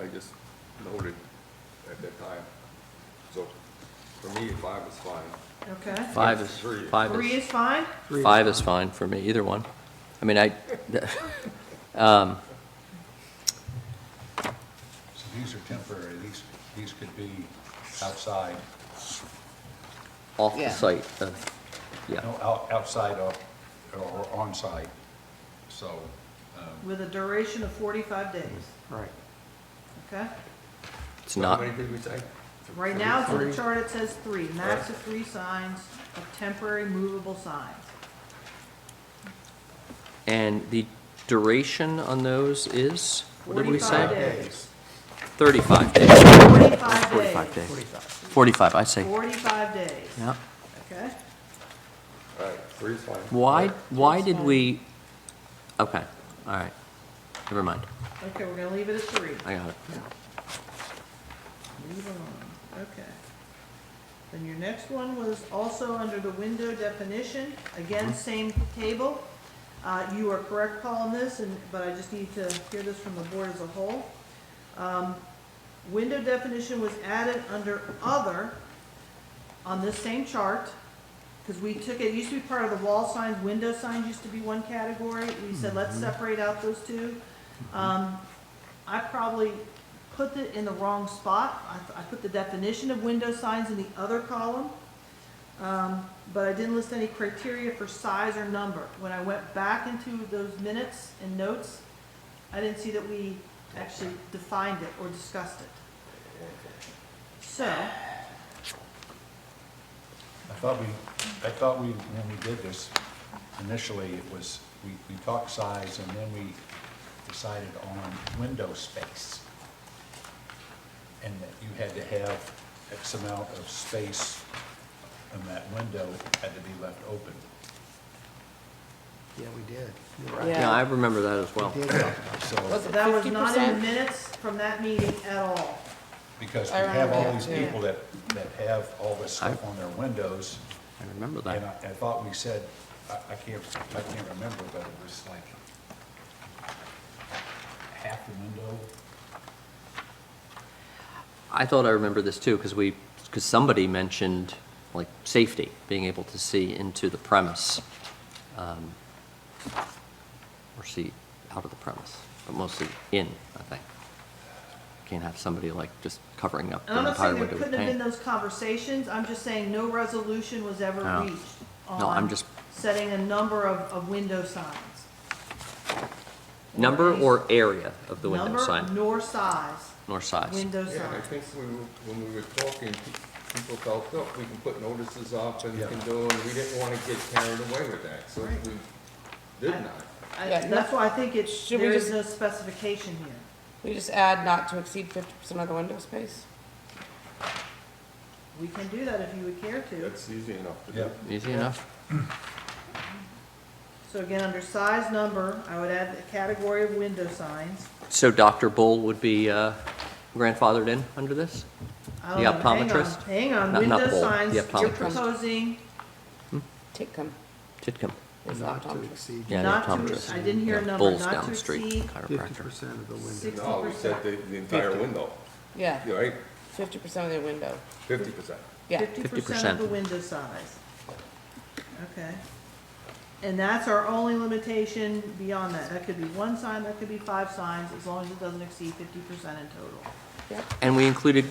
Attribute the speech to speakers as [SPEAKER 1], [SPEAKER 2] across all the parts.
[SPEAKER 1] I just noted at that time. So for me, five is fine.
[SPEAKER 2] Okay.
[SPEAKER 3] Five is,
[SPEAKER 1] Three.
[SPEAKER 3] five
[SPEAKER 2] Three
[SPEAKER 3] is,
[SPEAKER 2] is fine?
[SPEAKER 3] five is fine for me, either one. I mean, I, um,
[SPEAKER 4] So these are temporary, these, these could be outside,
[SPEAKER 3] off the
[SPEAKER 5] Yeah.
[SPEAKER 3] site, uh, yeah,
[SPEAKER 4] no, out- outside of, or on site. so, um,
[SPEAKER 2] With a duration of 45 days,
[SPEAKER 6] Right.
[SPEAKER 2] okay?
[SPEAKER 3] it's not,
[SPEAKER 1] How many did we say?
[SPEAKER 2] Right now, it's in the chart, it says three, max of three signs of temporary movable signs.
[SPEAKER 3] and the duration on those is, what did we
[SPEAKER 2] 45
[SPEAKER 3] say?
[SPEAKER 2] days.
[SPEAKER 3] 35 days,
[SPEAKER 2] 45 days.
[SPEAKER 3] 45, I say,
[SPEAKER 2] 45 days,
[SPEAKER 3] yeah.
[SPEAKER 2] okay?
[SPEAKER 1] All right, three is fine.
[SPEAKER 3] Why, why did
[SPEAKER 2] fine.
[SPEAKER 3] we, okay, all right, never mind,
[SPEAKER 2] Okay, we're gonna leave it at three.
[SPEAKER 3] I got it.
[SPEAKER 2] Move on, okay. Then your next one was also under the window definition, again, same table. Uh, you are correct, Paul, on this, and, but I just need to hear this from the board as a whole. Um, window definition was added under other on this same chart, because we took it, it used to be part of the wall signs, window signs used to be one category. We said, let's separate out those two. Um, I probably put it in the wrong spot. I, I put the definition of window signs in the other column. Um, but I didn't list any criteria for size or number. When I went back into those minutes and notes, I didn't see that we actually defined it or discussed it. So,
[SPEAKER 4] I thought we, I thought we, when we did this, initially, it was, we, we talked size, and then we decided on window space. And that you had to have X amount of space, and that window had to be left open.
[SPEAKER 6] Yeah, we did. You're right.
[SPEAKER 5] Yeah.
[SPEAKER 3] Yeah, I remember that as well.
[SPEAKER 6] We did talk
[SPEAKER 4] So,
[SPEAKER 5] Was it
[SPEAKER 2] that was not in the
[SPEAKER 5] 50%?
[SPEAKER 2] minutes from that meeting at all.
[SPEAKER 4] because we
[SPEAKER 5] I
[SPEAKER 4] have all
[SPEAKER 5] remember
[SPEAKER 4] these
[SPEAKER 5] that, yeah.
[SPEAKER 4] people that, that have all this stuff on their windows,
[SPEAKER 3] I remember
[SPEAKER 4] And I,
[SPEAKER 3] that.
[SPEAKER 4] I thought we said, I, I can't, I can't remember, but it was like half the window.
[SPEAKER 3] I thought I remembered this too, because we, because somebody mentioned, like, safety, being able to see into the premise, um, or see out of the premise, but mostly in, I think. Can't have somebody like just covering up
[SPEAKER 2] And
[SPEAKER 3] the
[SPEAKER 2] I'm not
[SPEAKER 3] entire
[SPEAKER 2] saying there
[SPEAKER 3] window with
[SPEAKER 2] couldn't have been
[SPEAKER 3] paint.
[SPEAKER 2] those conversations, I'm just saying no resolution was ever
[SPEAKER 3] No.
[SPEAKER 2] reached
[SPEAKER 3] No, I'm
[SPEAKER 2] on
[SPEAKER 3] just-
[SPEAKER 2] setting a number of, of window signs.
[SPEAKER 3] Number or area of the window
[SPEAKER 2] Number
[SPEAKER 3] sign,
[SPEAKER 2] nor size,
[SPEAKER 3] nor size.
[SPEAKER 2] window
[SPEAKER 1] Yeah, and I
[SPEAKER 2] sign.
[SPEAKER 1] think we were- when we were talking, pe- people felt, look, we can put notices up and we
[SPEAKER 4] Yeah.
[SPEAKER 1] can do, and we didn't want to get carried away with that, so
[SPEAKER 2] Right.
[SPEAKER 1] we did not.
[SPEAKER 2] I-
[SPEAKER 5] Yeah,
[SPEAKER 2] That's why I think it's,
[SPEAKER 5] Should we
[SPEAKER 2] there is
[SPEAKER 5] just-
[SPEAKER 2] no specification here.
[SPEAKER 5] We just add not to exceed fifty percent of the window space?
[SPEAKER 2] We can do that if you would care to.
[SPEAKER 1] That's easy enough to
[SPEAKER 4] Yeah.
[SPEAKER 1] do.
[SPEAKER 3] Easy enough?
[SPEAKER 2] So again, under size, number, I would add the category of window signs.
[SPEAKER 3] So Dr. Bull would be uh, grandfathered in under this?
[SPEAKER 2] I don't
[SPEAKER 3] The
[SPEAKER 2] know, hang on,
[SPEAKER 3] optometrist?
[SPEAKER 2] Hang on,
[SPEAKER 3] Not- not
[SPEAKER 2] window
[SPEAKER 3] bulb, the
[SPEAKER 2] signs, you're
[SPEAKER 3] optometrist.
[SPEAKER 2] proposing
[SPEAKER 5] Take them.
[SPEAKER 3] Titcomb?
[SPEAKER 5] It's
[SPEAKER 6] about not to
[SPEAKER 5] optometrist.
[SPEAKER 6] exceed
[SPEAKER 3] Yeah, the
[SPEAKER 2] Not to-
[SPEAKER 3] optometrist.
[SPEAKER 2] I didn't hear a
[SPEAKER 3] Yeah,
[SPEAKER 2] number,
[SPEAKER 3] Bull's
[SPEAKER 2] not
[SPEAKER 3] down
[SPEAKER 2] to
[SPEAKER 3] the street,
[SPEAKER 2] exceed
[SPEAKER 6] fifty
[SPEAKER 3] chiropractor.
[SPEAKER 6] percent of the window.
[SPEAKER 2] six-
[SPEAKER 1] No, we said the, the entire
[SPEAKER 6] Fifty.
[SPEAKER 1] window,
[SPEAKER 5] Yeah,
[SPEAKER 1] You're right,
[SPEAKER 5] fifty percent of the window.
[SPEAKER 1] fifty percent.
[SPEAKER 5] Yeah,
[SPEAKER 2] Fifty percent of
[SPEAKER 3] 50%.
[SPEAKER 2] the window size. Okay. And that's our only limitation beyond that. That could be one sign, that could be five signs, as long as it doesn't exceed fifty percent in total.
[SPEAKER 5] yeah.
[SPEAKER 3] And we included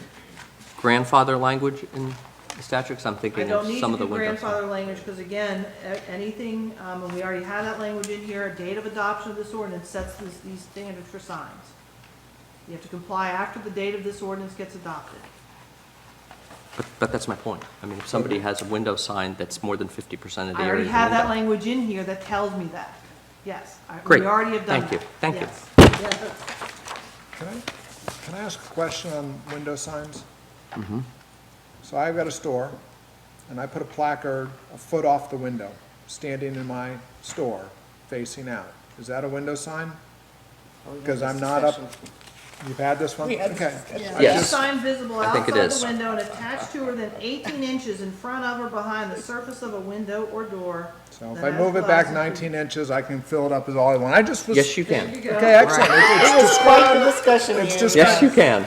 [SPEAKER 3] grandfather language in the statute, 'Cause I'm
[SPEAKER 2] I
[SPEAKER 3] thinking of
[SPEAKER 2] don't need
[SPEAKER 3] some
[SPEAKER 2] to
[SPEAKER 3] of the
[SPEAKER 2] do
[SPEAKER 3] windows.
[SPEAKER 2] grandfather language, because again, a- anything, um, and we already had that language in here, a date of adoption of this ordinance sets these, these standards for signs. You have to comply after the date of this ordinance gets adopted.
[SPEAKER 3] But, but that's my point. I mean, if somebody has a window sign that's more than 50% of the
[SPEAKER 2] I
[SPEAKER 3] area.
[SPEAKER 2] already
[SPEAKER 3] of the
[SPEAKER 2] have that
[SPEAKER 3] window-
[SPEAKER 2] language in here that tells me that, yes. I-
[SPEAKER 3] Great.
[SPEAKER 2] We already have done
[SPEAKER 3] Thank you.
[SPEAKER 2] that.
[SPEAKER 3] Thank you.
[SPEAKER 2] Yes.
[SPEAKER 7] Can I, can I ask a question on window signs?
[SPEAKER 3] Mm-hmm.
[SPEAKER 7] So I've got a store, and I put a placard a foot off the window, standing in my
[SPEAKER 5] Oh,
[SPEAKER 7] store, facing out. Is that a window sign? Because I'm not up You've had this one?
[SPEAKER 5] We had
[SPEAKER 7] Okay.
[SPEAKER 5] this
[SPEAKER 7] I
[SPEAKER 2] Yeah, a
[SPEAKER 3] Yes.
[SPEAKER 7] just-
[SPEAKER 2] sign visible
[SPEAKER 3] I think it
[SPEAKER 2] outside
[SPEAKER 3] is.
[SPEAKER 2] the window and attached to or than eighteen inches in front of or behind the surface of a window or door.
[SPEAKER 7] So if
[SPEAKER 2] that
[SPEAKER 7] I
[SPEAKER 2] has
[SPEAKER 7] move it back
[SPEAKER 2] glass
[SPEAKER 7] nineteen inches, I can fill it up as all I want. I just was.
[SPEAKER 3] Yes, you
[SPEAKER 2] There you
[SPEAKER 3] can.
[SPEAKER 2] go.
[SPEAKER 7] Okay, excellent. It's- it's
[SPEAKER 5] Quite the
[SPEAKER 7] described-
[SPEAKER 5] discussion
[SPEAKER 7] It's
[SPEAKER 5] here.
[SPEAKER 7] just
[SPEAKER 3] Yes, you can.